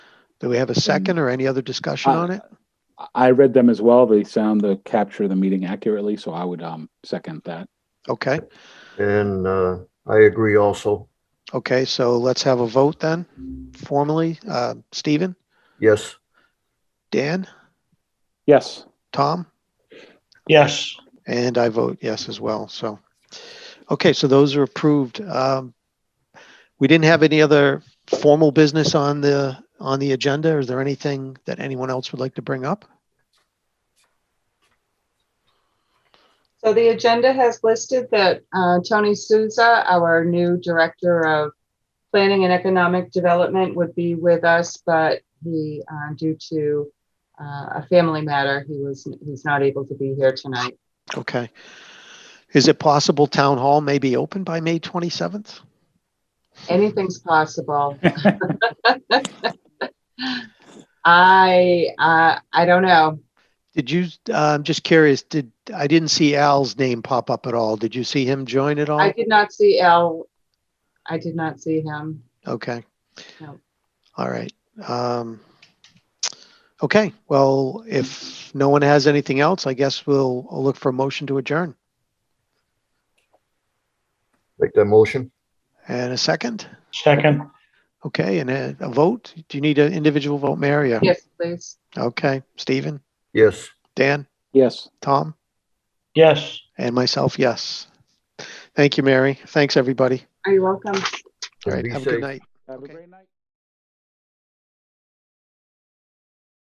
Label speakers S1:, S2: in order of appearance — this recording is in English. S1: Do we have a second or any other discussion
S2: Uh,
S1: on it?
S2: I- I read them as well. They sound to capture the meeting accurately, so I would um second that.
S1: Okay,
S3: And uh, I agree also.
S1: okay, so let's have a vote then formally. Uh, Stephen,
S3: Yes,
S1: Dan,
S2: Yes,
S1: Tom?
S4: Yes,
S1: And I vote yes as well, so. Okay, so those are approved. Um, We didn't have any other formal business on the, on the agenda. Is there anything that anyone else would like to bring up?
S5: So the agenda has listed that uh, Tony Souza, our new Director of Planning and Economic Development, would be with us, but he, uh, due to uh, a family matter, he was, he's not able to be here tonight.
S1: Okay. Is it possible town hall may be open by May 27th?
S5: Anything's possible. I, uh, I don't know.
S1: Did you, uh, I'm just curious, did, I didn't see Al's name pop up at all. Did you see him join at all?
S5: I did not see Al. I did not see him.
S1: Okay.
S5: No.
S1: All right. Um, okay, well, if no one has anything else, I guess we'll I'll look for a motion to adjourn.
S3: make that motion.
S1: And a second?
S4: second,
S1: Okay, and a, a vote? Do you need an individual vote, Mary? or-
S5: Yes, please.
S1: Okay, Stephen,
S3: Yes.
S1: Dan,
S2: yes.
S1: Tom,
S4: yes.
S1: and myself, yes. Thank you, Mary. Thanks, everybody.
S5: Are you welcome?
S1: All right,
S3: Be
S1: have a good
S3: safe.
S1: night.
S2: Have a
S1: Okay.
S2: great night.